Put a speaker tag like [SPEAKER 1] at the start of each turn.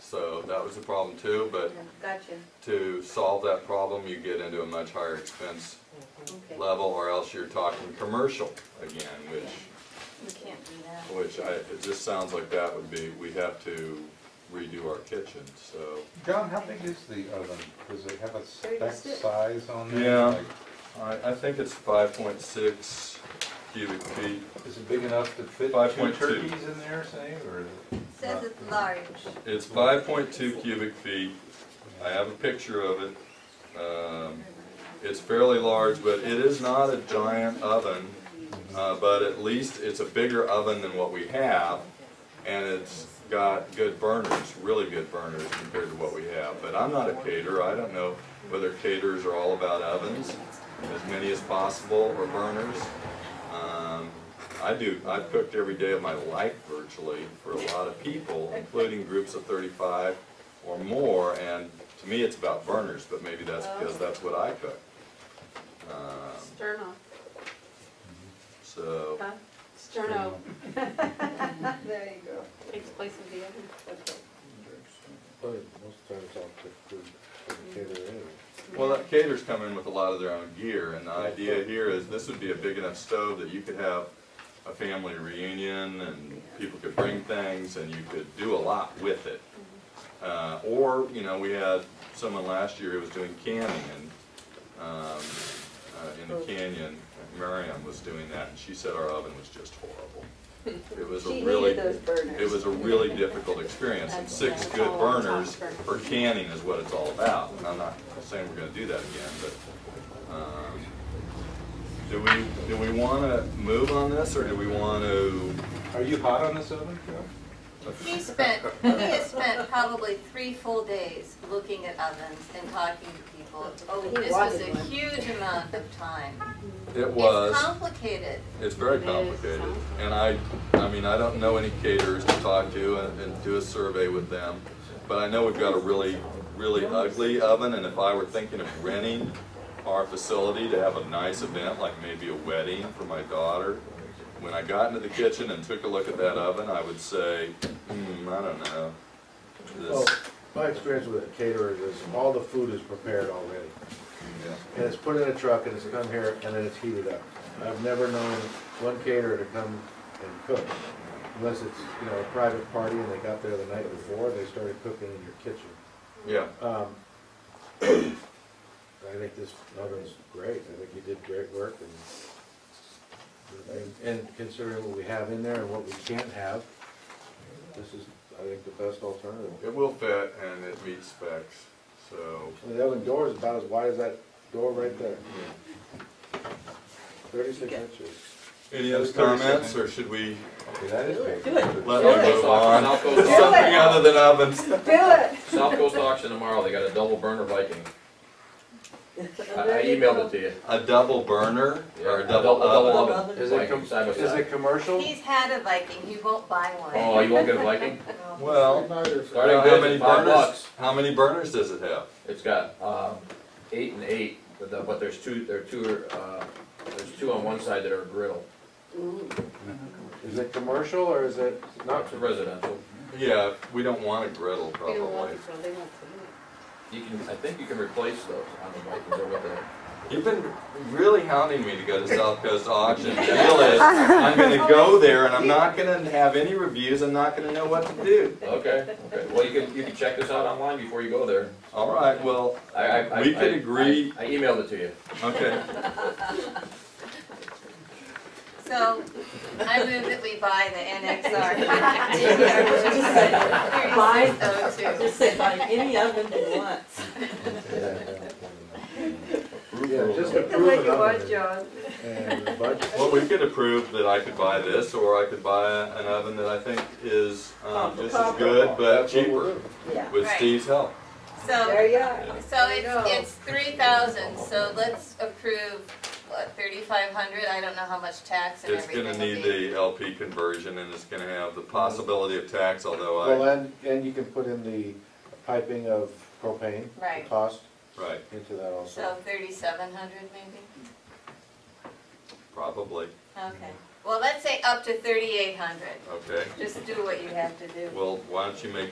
[SPEAKER 1] So that was a problem too, but
[SPEAKER 2] Gotcha,
[SPEAKER 1] to solve that problem, you get into a much higher expense
[SPEAKER 2] okay.
[SPEAKER 1] level or else you're talking commercial again, which,
[SPEAKER 2] We can't do that.
[SPEAKER 1] which I, it just sounds like that would be, we have to redo our kitchen, so.
[SPEAKER 3] John, how big is the oven? Does it have a spec
[SPEAKER 2] 36.
[SPEAKER 3] size on there?
[SPEAKER 1] Yeah.
[SPEAKER 3] Like,
[SPEAKER 1] I, I think it's five point six cubic feet.
[SPEAKER 3] Is it big enough to fit two
[SPEAKER 1] 5.2.
[SPEAKER 3] turkeys in there, say, or?
[SPEAKER 2] Says it's large.
[SPEAKER 1] It's five point two cubic feet. I have a picture of it. Um, It's fairly large, but it is not a giant oven, uh, but at least it's a bigger oven than what we have. And it's got good burners, really good burners compared to what we have. But I'm not a caterer. I don't know whether caterers are all about ovens, as many as possible, or burners. Um, I do, I've cooked every day of my life virtually for a lot of people, including groups of thirty-five or more, and to me, it's about burners, but maybe that's because that's what I cook. Um,
[SPEAKER 4] Stern off,
[SPEAKER 1] So,
[SPEAKER 4] huh? Stern off
[SPEAKER 2] There you go.
[SPEAKER 4] takes place of the oven.
[SPEAKER 5] But most times I'll cook food for the caterer anyway.
[SPEAKER 1] well, that caterers come in with a lot of their own gear, and the idea here is this would be a big enough stove that you could have a family reunion, and people could bring things, and you could do a lot with it. Uh, or, you know, we had someone last year who was doing canning and, um, uh, in
[SPEAKER 2] Oh.
[SPEAKER 1] the canyon, Miriam was doing that, and she said our oven was just horrible. It was
[SPEAKER 2] She
[SPEAKER 1] a really,
[SPEAKER 2] needed those burners.
[SPEAKER 1] it was a really difficult experience, and six good burners for canning is what it's all about. And I'm not saying we're gonna do that again, but, um, do we, do we wanna move on this, or do we wanna?
[SPEAKER 3] Are you hot on this oven, Joe?
[SPEAKER 2] He spent, he has spent probably three full days looking at ovens and talking to people. Oh, this was a huge amount of time.
[SPEAKER 1] It was.
[SPEAKER 2] It's complicated.
[SPEAKER 1] It's very
[SPEAKER 4] It is
[SPEAKER 1] complicated,
[SPEAKER 4] complicated.
[SPEAKER 1] and I, I mean, I don't know any caterers to talk to and, and do a survey with them, but I know we've got a really, really ugly oven, and if I were thinking of renting our facility to have a nice event, like maybe a wedding for my daughter, when I got into the kitchen and took a look at that oven, I would say, hmm, I don't know.
[SPEAKER 5] Well,
[SPEAKER 1] This,
[SPEAKER 5] Oh, my experience with a caterer is all the food is prepared already.
[SPEAKER 1] yeah.
[SPEAKER 5] And it's put in a truck and it's come here and then it's heated up. I've never known one caterer to come and cook unless it's, you know, a private party and they got there the night before and they started cooking in your kitchen.
[SPEAKER 1] yeah,
[SPEAKER 5] Um, I think this oven's great, I think you did great work and, and- and considering what we have in there and what we can't have, this is, I think, the best alternative.
[SPEAKER 1] it will fit and it meets specs, so,
[SPEAKER 5] And The oven door is about as wide as that door right there, thirty-six inches.
[SPEAKER 1] any other comments, or should we
[SPEAKER 3] Okay, that is big.
[SPEAKER 2] Do it.
[SPEAKER 1] let them move on?
[SPEAKER 6] South Coast,
[SPEAKER 1] Something
[SPEAKER 6] Auction-
[SPEAKER 1] other than ovens.
[SPEAKER 6] South Coast auction tomorrow, they got a double burner Viking. I I emailed it to you.
[SPEAKER 1] A double burner or a
[SPEAKER 6] Yeah,
[SPEAKER 1] double oven?
[SPEAKER 6] oven,
[SPEAKER 5] Is it
[SPEAKER 6] Viking
[SPEAKER 5] com-
[SPEAKER 6] side by
[SPEAKER 5] Is
[SPEAKER 6] side.
[SPEAKER 5] it commercial?
[SPEAKER 2] He's had a Viking, he won't buy one.
[SPEAKER 6] Oh, you won't get a Viking?
[SPEAKER 1] Well,
[SPEAKER 6] Starting
[SPEAKER 1] how
[SPEAKER 6] goods
[SPEAKER 1] many
[SPEAKER 6] at five
[SPEAKER 1] burners?
[SPEAKER 6] bucks.
[SPEAKER 1] how many burners does it have?
[SPEAKER 6] It's got, um, eight and eight, but the- but there's two, there are two, uh, there's two on one side that are griddle.
[SPEAKER 5] Is it commercial or is it not?
[SPEAKER 6] It's a residential.
[SPEAKER 1] Yeah, we don't want a griddle
[SPEAKER 4] We don't want
[SPEAKER 1] probably.
[SPEAKER 4] it, so they won't put it.
[SPEAKER 6] You can, I think you can replace those on the Vikings or with the,
[SPEAKER 1] You've been really hounding me to go to South Coast Auction. The deal is, I'm gonna go there and I'm not gonna have any reviews, I'm not gonna know what to do.
[SPEAKER 6] okay, okay. Well, you can, you can check this out online before you go there.
[SPEAKER 1] All right, well,
[SPEAKER 6] I, I. I-
[SPEAKER 1] we could
[SPEAKER 6] I-
[SPEAKER 1] agree,
[SPEAKER 6] I emailed it to you.
[SPEAKER 1] okay.
[SPEAKER 2] So, I move that we buy the NXR.
[SPEAKER 7] Buy-
[SPEAKER 2] Oh, two.
[SPEAKER 7] Just say buy any oven you want.
[SPEAKER 5] Yeah, just
[SPEAKER 4] You can make
[SPEAKER 5] approve
[SPEAKER 4] it work,
[SPEAKER 5] it
[SPEAKER 4] John.
[SPEAKER 5] and the budget.
[SPEAKER 1] Well, we could approve that I could buy this or I could buy a- an oven that I think is, um, just as good but
[SPEAKER 5] That's what we'll
[SPEAKER 1] cheaper
[SPEAKER 5] do.
[SPEAKER 7] Yeah.
[SPEAKER 1] with
[SPEAKER 2] Right.
[SPEAKER 1] Steve's help.
[SPEAKER 2] So,
[SPEAKER 4] There you are.
[SPEAKER 2] so
[SPEAKER 4] There you
[SPEAKER 2] it's,
[SPEAKER 4] go.
[SPEAKER 2] it's three thousand, so let's approve, what, thirty-five hundred? I don't know how much tax and
[SPEAKER 1] It's
[SPEAKER 2] everything
[SPEAKER 1] gonna
[SPEAKER 2] will
[SPEAKER 1] need
[SPEAKER 2] be.
[SPEAKER 1] the LP conversion and it's gonna have the possibility of tax,
[SPEAKER 5] Well,
[SPEAKER 1] although I,
[SPEAKER 5] and, and you can put in the piping of propane. the
[SPEAKER 2] Right.
[SPEAKER 5] Cost
[SPEAKER 1] right,
[SPEAKER 5] into that
[SPEAKER 2] So
[SPEAKER 5] also.
[SPEAKER 2] thirty-seven hundred maybe?
[SPEAKER 1] probably,
[SPEAKER 2] Okay. Well, let's say up to thirty-eight hundred.
[SPEAKER 1] okay.
[SPEAKER 2] Just do what you have to do.
[SPEAKER 1] Well, why don't you make